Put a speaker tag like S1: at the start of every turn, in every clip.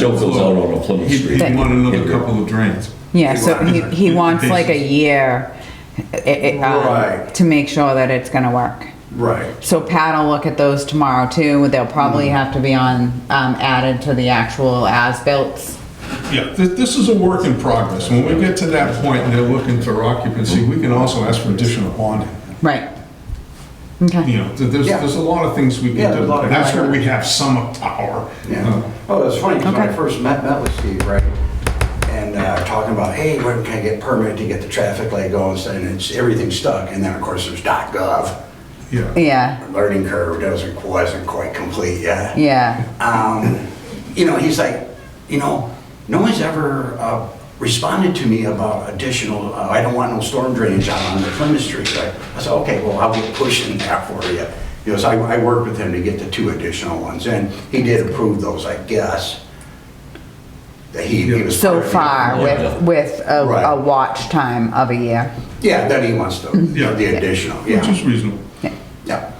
S1: Showville's out on a Plymouth
S2: He'd
S1: Street.
S2: he'd want another
S1: Yeah.
S2: couple of drains.
S3: Yeah, so he, he wants like a year i- i- um,
S4: Right.
S3: to make sure that it's gonna work.
S4: Right.
S3: So Pat will look at those tomorrow too, they'll probably
S4: Mm-hmm.
S3: have to be on, um, added to the actual as-built.
S2: Yeah, thi- this is a work in progress. When we get to that point and they're looking for occupancy, we can also ask for additional bonding.
S3: Right.
S2: You
S3: Okay,
S2: know, th- there's,
S4: Yeah.
S2: there's a lot of things we
S4: Yeah,
S2: can
S4: there's
S2: do.
S4: a lot of-
S2: That's where we have some power. Uh,
S4: Yeah. Oh, it's funny, because when I
S3: Okay.
S4: first met, met with Steve, right, and uh, talking about, hey, when can I get permit to get the traffic light going, and it's, everything's stuck, and then, of course, there's dot gov.
S2: Yeah.
S3: yeah,
S4: Learning curve doesn't, wasn't quite complete yet.
S3: yeah,
S4: Um, You know, he's like, you know, no one's ever uh, responded to me about additional, uh, I don't want no storm drainage out on the Plymouth Street, right? I said, okay, well, I'll be pushing that for you. You know, so I, I worked with him to get the two additional ones, and he did approve those, I guess. That he, he was.
S3: so far with, with a,
S4: Right.
S3: a watch time of a year.
S4: Yeah, then he wants the,
S2: Yeah.
S4: the additional,
S2: Which is
S4: yeah.
S2: reasonable.
S4: Yeah.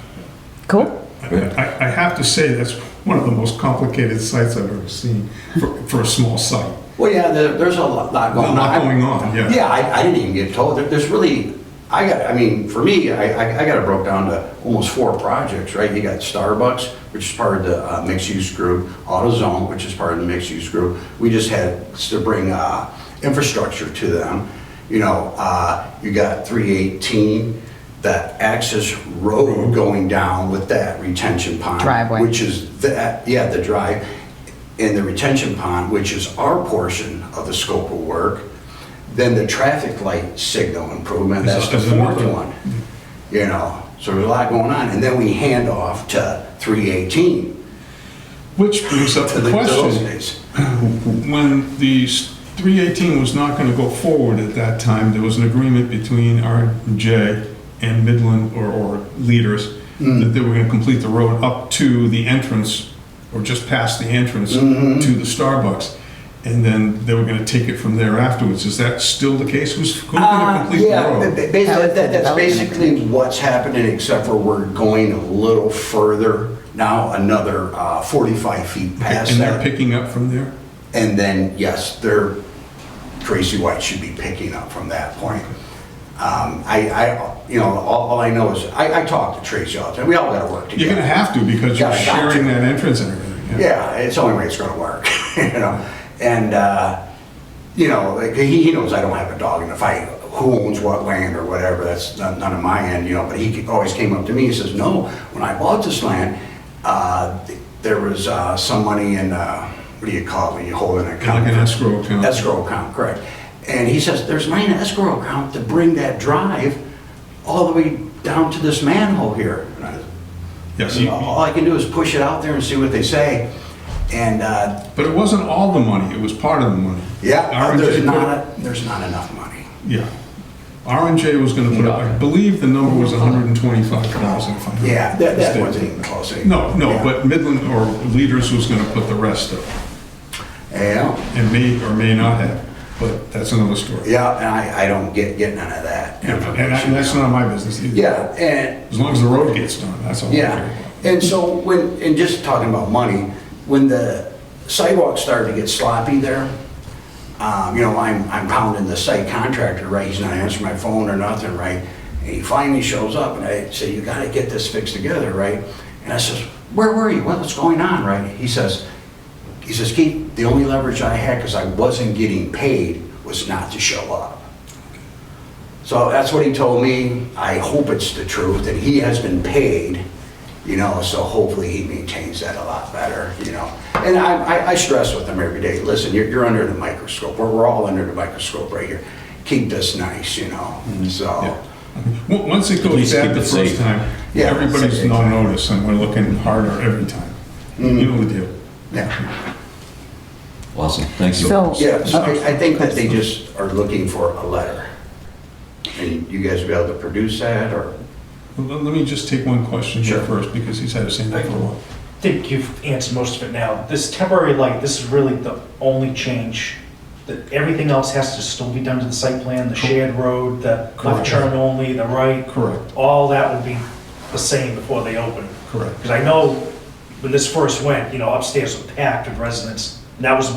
S3: Cool?
S2: I, I- I have to say, that's one of the most complicated sites I've ever seen for, for a small site.
S4: Well, yeah, there, there's a lot lot
S2: A
S4: going on.
S2: lot going on, yeah.
S4: Yeah, I, I didn't even get told, There- there's really, I got, I mean, for me, I, I- I got it broke down to almost four projects, right? You got Starbucks, which is part of the uh, mixed-use group, AutoZone, which is part of the mixed-use group. We just had to bring uh, infrastructure to them, you know, uh, you got 318, that access
S2: Mm-hmm.
S4: road going down with that retention pond.
S3: Driveway.
S4: Which is that, yeah, the drive, and the retention pond, which is our portion of the scope of work, then the traffic light signal improvement, that's the
S2: Is- is another-
S4: fourth one. You know, so there's a lot going on, and then we hand off to 318.
S2: Which brings up
S4: to
S2: the
S4: the those
S2: question,
S4: days.
S2: when the s- 318 was not going to go forward at that time, there was an agreement between RJ and Midland or, or leaders that they were going to complete the road up to the entrance or just past the entrance to the Starbucks. And then they were going to take it from there afterwards. Is that still the case? Who's who's going to
S4: Uh,
S2: complete the
S4: Yeah, ba- ba-
S2: road?
S4: basically,
S3: That was the
S4: that- that's
S3: development
S4: basically what's happening, except for we're going a little further now, another uh, 45 feet past
S2: And they're
S4: that.
S2: picking up from there?
S4: And then, yes, they're, Tracy White should be picking up from that point. Um, I, I, you know, all all I know is, I I talk to Tracy all the time, we all gotta work together.
S2: You're going to have to because you're
S4: Yeah, I got
S2: sharing
S4: to.
S2: that entrance and everything.
S4: Yeah, it's the only way it's gonna work, you know? And, uh, you know, like, he, he knows I don't have a dog in the fight, who owns what land or whatever, that's none none of my end, you know, but he always came up to me, he says, no, when I bought this land, uh, th- there was, uh, some money in, uh, what do you call it, when you hold an account?
S2: Like an escrow account.
S4: Escrow account, correct. And he says, there's money in the escrow account to bring that drive all the way down to this manhole here. And I said,
S2: Yes.
S4: so All I can do is push it out there and see what they say. And, uh,
S2: But it wasn't all the money, it was part of the money.
S4: yeah,
S2: R&J
S4: there's
S2: put-
S4: not, there's not enough money.
S2: Yeah. R and J was gonna put up, I believe the number was hundred and twenty-five thousand, if I'm not
S4: Yeah, that, that
S2: mistaken.
S4: wasn't even close.
S2: No, no,
S4: Yeah.
S2: but Midland or Leaders was gonna put the rest up,
S4: Yeah,
S2: and may or may not have, but that's another story.
S4: yeah, and I, I don't get, get none of that
S2: And I- and that's
S4: information.
S2: not my business either.
S4: Yeah, and,
S2: As long as the road gets done, that's all. I care
S4: Yeah,
S2: about.
S4: and so when, and just talking about money, when the sidewalk started to get sloppy there, um, you know, I'm, I'm pounding the site contractor, right, he's not answering my phone or nothing, right? And he finally shows up, and I say, you gotta get this fixed together, right? And I says, where were you, Well, what's going on, right? He says, he says, Keith, the only leverage I had, because I wasn't getting paid, was not to show up. So that's what he told me. I hope it's the truth, and he has been paid, you know, so hopefully he maintains that a lot better, you know. And I, I- I stress with him every day, listen, you're, you're under the microscope, we're, we're all under the microscope right here. Keep this nice, you know, so,
S2: Well, Once it goes
S1: least
S2: bad
S1: keep
S2: the
S1: it
S2: first
S1: safe.
S2: time,
S4: Yeah.
S2: everybody's on notice, and we're looking harder every time.
S4: Mm.
S2: You know the deal.
S4: yeah.
S1: Awesome, thank you.
S3: So-
S4: Yeah, so I, I think that they just are looking for a letter. And you guys will be able to produce that, or?
S2: Well, Let let me just take one question here
S4: Sure.
S2: first, because he's had his hand up for a while.
S5: I think you've answered most of it now. This temporary light, this is really the only change. That everything else has to still be done to the site plan, the shared road, the
S2: Correct.
S5: left turn only, the right.
S2: Correct.
S5: All that will be the same before they open.
S2: Correct.
S5: Because I know when this first went, you know, upstairs was packed with residents And that was